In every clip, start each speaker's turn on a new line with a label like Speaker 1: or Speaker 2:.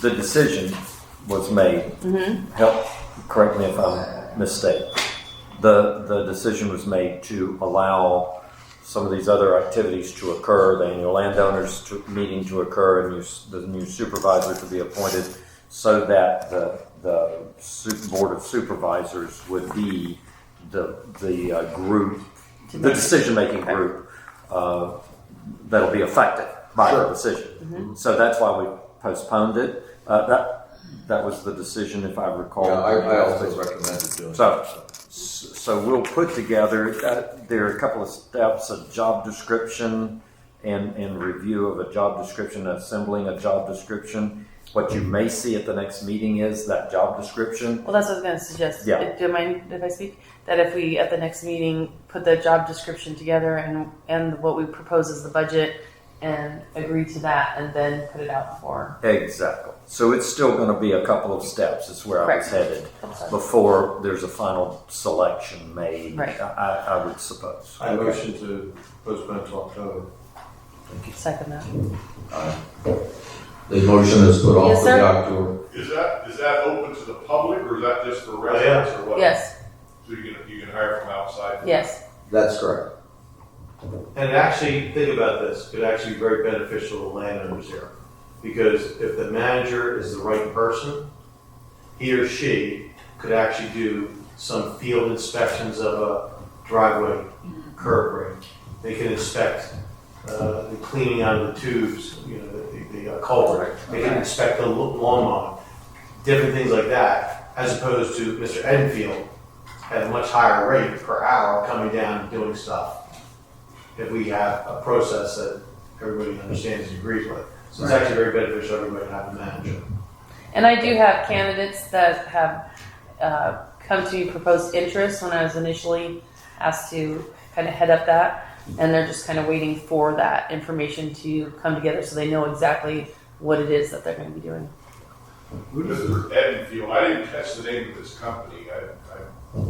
Speaker 1: the decision was made, help, correct me if I'm mistaken. The, the decision was made to allow some of these other activities to occur, the annual landowners to, meeting to occur, and you, s- the new supervisor to be appointed, so that the, the su- board of supervisors would be the, the uh, group, the decision-making group, uh, that'll be affected by the decision. So that's why we postponed it. Uh, that that was the decision, if I recall.
Speaker 2: Yeah, I, I also recommended doing.
Speaker 1: So-
Speaker 2: that.
Speaker 1: so we'll put together. Uh, there are a couple of steps: a job description and and review of a job description, assembling a job description. What you may see at the next meeting is that job description.
Speaker 3: Well, that's what I was going to suggest.
Speaker 1: Yeah.
Speaker 3: Do you mind if I speak? That if we, at the next meeting, put the job description together and, and what we propose as the budget and agree to that and then put it out for.
Speaker 1: Exactly. So it's still going to be a couple of steps. Is where I was
Speaker 3: Correct.
Speaker 1: headed before there's a final selection made.
Speaker 3: Right.
Speaker 1: I, I- I would suppose.
Speaker 4: I motion to postpone to October.
Speaker 3: Second that.
Speaker 2: The motion is put off
Speaker 3: Yes,
Speaker 2: to the
Speaker 3: sir.
Speaker 2: October.
Speaker 5: Is that, is that open to the public or is that just for
Speaker 4: yeah.
Speaker 5: residents or what?
Speaker 3: Yes,
Speaker 5: So you can, you can hire from outside?
Speaker 3: yes.
Speaker 2: That's correct.
Speaker 4: And actually, think about this, could actually be very beneficial to landowners here. Because if the manager is the right person, he or she could actually do some field inspections of a driveway, curb ring. They can inspect uh, the cleaning out of the tubes, you know, the, the uh, culvert. They can inspect the lo- lawn mowing, different things like that, as opposed to Mr. Enfield at a much higher rate per hour coming down and doing stuff if we have a process that everybody understands and agrees with. So it's actually very beneficial to everybody to have a manager.
Speaker 3: And I do have candidates that have uh, come to me proposed interest when I was initially asked to kind of head up that. And they're just kind of waiting for that information to come together so they know exactly what it is that they're going to be doing.
Speaker 5: Mr. Edenfield, I didn't catch the name of this company. I, I,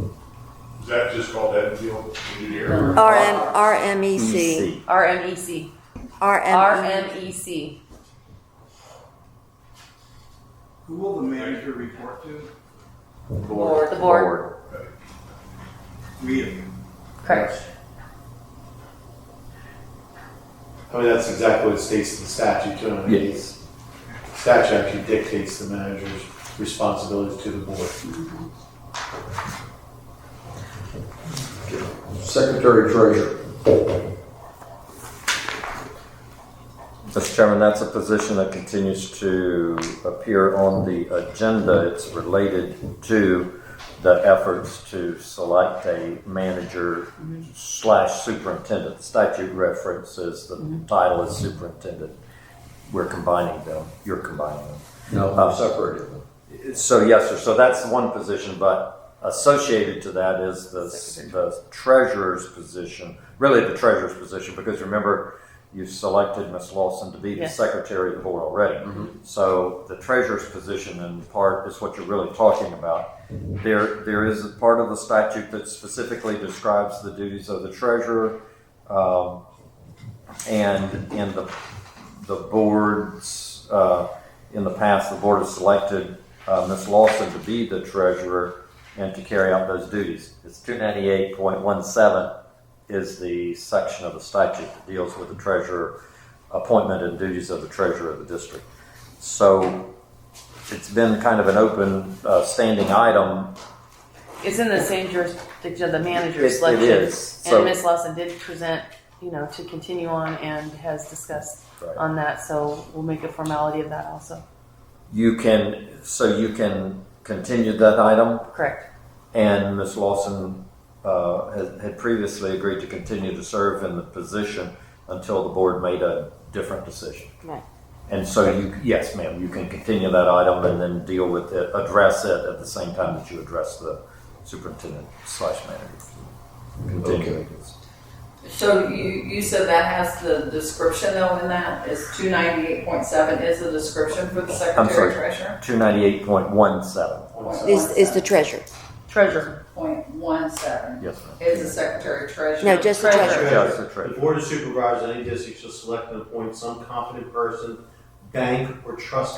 Speaker 5: is that just called Edenfield Engineering?
Speaker 6: RM, E RMEC.
Speaker 1: EC.
Speaker 3: RMEC. E
Speaker 6: RME.
Speaker 3: RMEC.
Speaker 7: Who will the manager report to?
Speaker 3: The board.
Speaker 7: Me and you.
Speaker 3: Correct.
Speaker 4: I mean, that's exactly what it states in the statute too. and it is- Statute actually dictates the manager's responsibilities to the board.
Speaker 2: Secretary Treasurer.
Speaker 1: Mr. Chairman, that's a position that continues to appear on the agenda. It's related to the efforts to select a manager slash superintendent. Statute references, the title is superintendent. We're combining them, you're combining them.
Speaker 2: No, I'm separated.
Speaker 1: So yes, sir. So that's one position, but associated to that is the, the treasurer's position, really the treasurer's position, because remember, you selected Ms. Lawson to be the
Speaker 3: Yes.
Speaker 1: secretary of the board already. So the treasurer's position in part is what you're really talking about. There, there is a part of the statute that specifically describes the duties of the treasurer. Um, and in the, the boards, uh, in the past, the board has selected uh, Ms. Lawson to be the treasurer and to carry out those duties. It's 298.17 is the section of the statute that deals with the treasurer appointment and duties of the treasurer of the district. So it's been kind of an open uh, standing item.
Speaker 3: It's in the same jurisdiction of the
Speaker 1: It-
Speaker 3: manager
Speaker 1: It
Speaker 3: selection.
Speaker 1: is.
Speaker 3: And
Speaker 1: So,
Speaker 3: Ms. Lawson did present, you know, to continue on and has discussed
Speaker 1: Right.
Speaker 3: on that, so we'll make a formality of that also.
Speaker 1: you can, so you can continue that item
Speaker 3: Correct.
Speaker 1: And Ms. Lawson uh, had had previously agreed to continue to serve in the position until the board made a different decision.
Speaker 6: Right.
Speaker 1: And so you, yes, ma'am, you can continue that item and then deal with it, address it at the same time that you address the superintendent slash manager. Continuing.
Speaker 8: So you, you said that has the description though in that, is two ninety-eight point seven is the description for the
Speaker 1: sorry.
Speaker 8: secretary treasurer?
Speaker 1: 298.17,
Speaker 6: Is, is the treasurer.
Speaker 3: Treasurer.
Speaker 8: Point one seven
Speaker 1: yes, ma'am.
Speaker 8: is the secretary treasurer.
Speaker 6: No, just the treasurer.
Speaker 1: Yes, the
Speaker 4: The
Speaker 1: treasurer.
Speaker 4: board of supervisors, in any district shall select and appoint some competent person, bank or trust